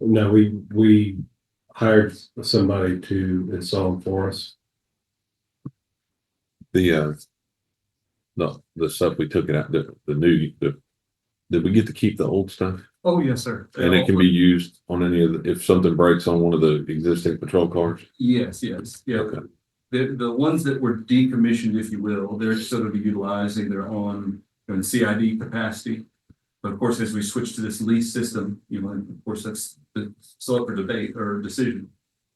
No, we, we hired somebody to install them for us. The, uh, no, the stuff we took it out, the, the new, the, did we get to keep the old stuff? Oh, yes, sir. And it can be used on any of the, if something breaks on one of the existing patrol cars? Yes, yes, yeah. Okay. The, the ones that were decommissioned, if you will, they're still gonna be utilizing their own, you know, CID capacity. But of course, as we switch to this lease system, you know, and of course, that's, that's still up for debate or decision.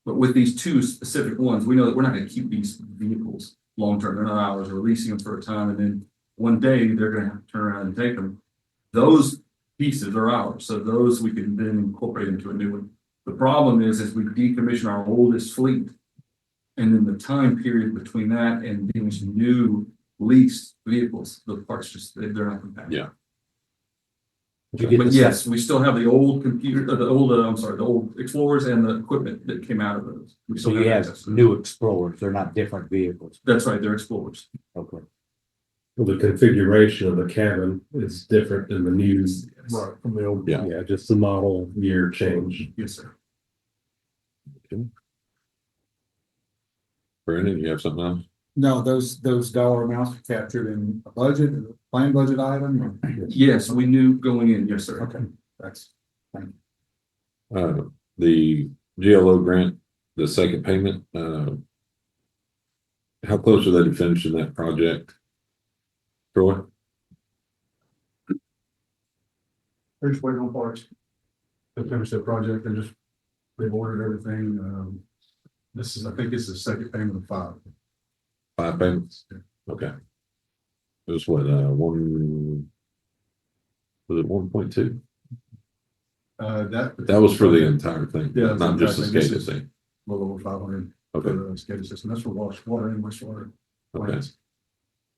But with these two specific ones, we know that we're not gonna keep these vehicles long-term, they're not ours, we're leasing them for a time, and then one day, they're gonna have to turn around and take them. Those pieces are ours, so those we can then incorporate into a new one. The problem is, is we decommission our oldest fleet. And then the time period between that and these new leased vehicles, the parts just, they- they're not compatible. Yeah. Did you get But this- yes, we still have the old computer, uh, the old, uh, I'm sorry, the old Explorers and the equipment that came out of those. We So still you have access to them. new Explorers, they're not different vehicles. That's right, they're Explorers. Okay. The configuration of the cabin is different than the new. Right. From the old. Yeah. Yeah, just the model year change. Yes, sir. Brandon, you have something else? No, those, those dollar amounts are captured in a budget, a plan budget item, or- Yes, we knew going in, yes, sir. okay, that's. Uh, the GLO grant, the second payment, uh. How close are they to finishing that project? Troy, They're just waiting on parts. To finish that project, they just, they've ordered everything, um, this is, I think it's the second payment of five. five payments? Okay. It was what, uh, one? Was it one point two? Uh, that. That was for the entire thing, Yeah, not just the exactly. This SCADA is- thing. A little over five hundred for Okay, the SCADA system, that's for wash, water and wastewater. okay. plants.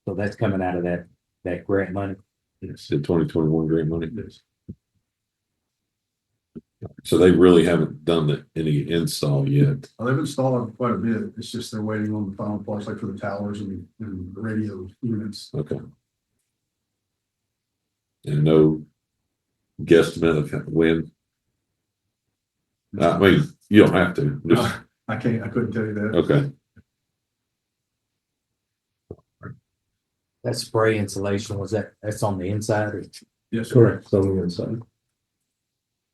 So that's coming out of that, that grant money. It's the twenty twenty-one grant money. Yes. So they really haven't done the, any install yet. Uh, They've installed quite a bit, it's just they're waiting on the final parts, like for the towers and, and radio units. Okay. And no guesstimate of when, I mean, you don't have to, just, I can't, I couldn't tell you that. okay, That spray insulation, was that, that's on the inside or? Yes, sir. Correct, it's on the inside.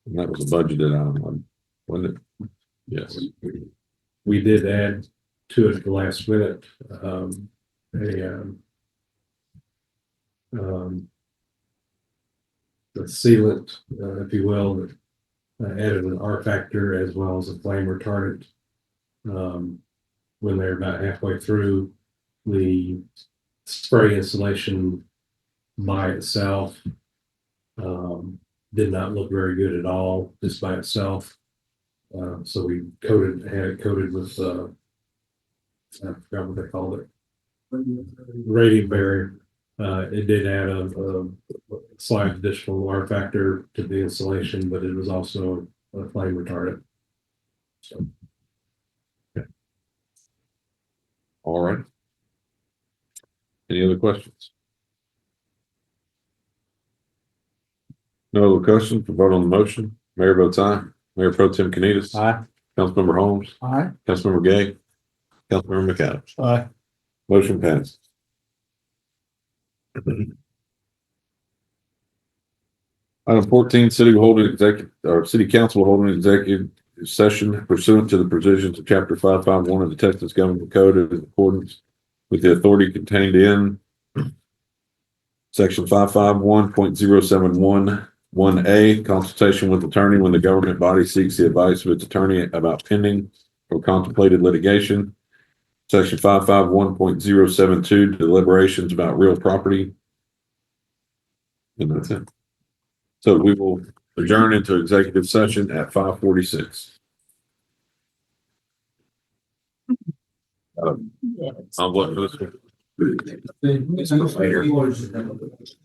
and that was a budgeted item, wasn't it? Yes, We did add to it at the last minute, um, a, um, um, the sealant, uh, if you will, that uh, added an R factor as well as a flame retardant. Um, when they're about halfway through, the spray installation by itself um, did not look very good at all, just by itself. Uh, so we coated, had it coated with, uh, I forgot what they called it. Radiant barrier. Uh, it did add a, a slight additional R factor to the insulation, but it was also a flame retardant. all right. Any other questions? No other questions, vote on the motion, Mayor votes aye, Mayor Pro Tim Canitas, Aye. Councilmember Holmes, Aye. Councilmember Gay, Councilmember McAdams. Aye. Motion passed. Item fourteen, city will hold an executive, or city council will hold an executive session pursuant to the provisions of chapter five five one of the Texas Government Code in accordance with the authority contained in section five five one point zero seven one one A, consultation with attorney when the government body seeks the advice of its attorney about pending or contemplated litigation. Section five five one point zero seven two deliberations about real property. And that's it. So we will adjourn into executive session at five forty-six. Um, I'm looking for this. one. Later.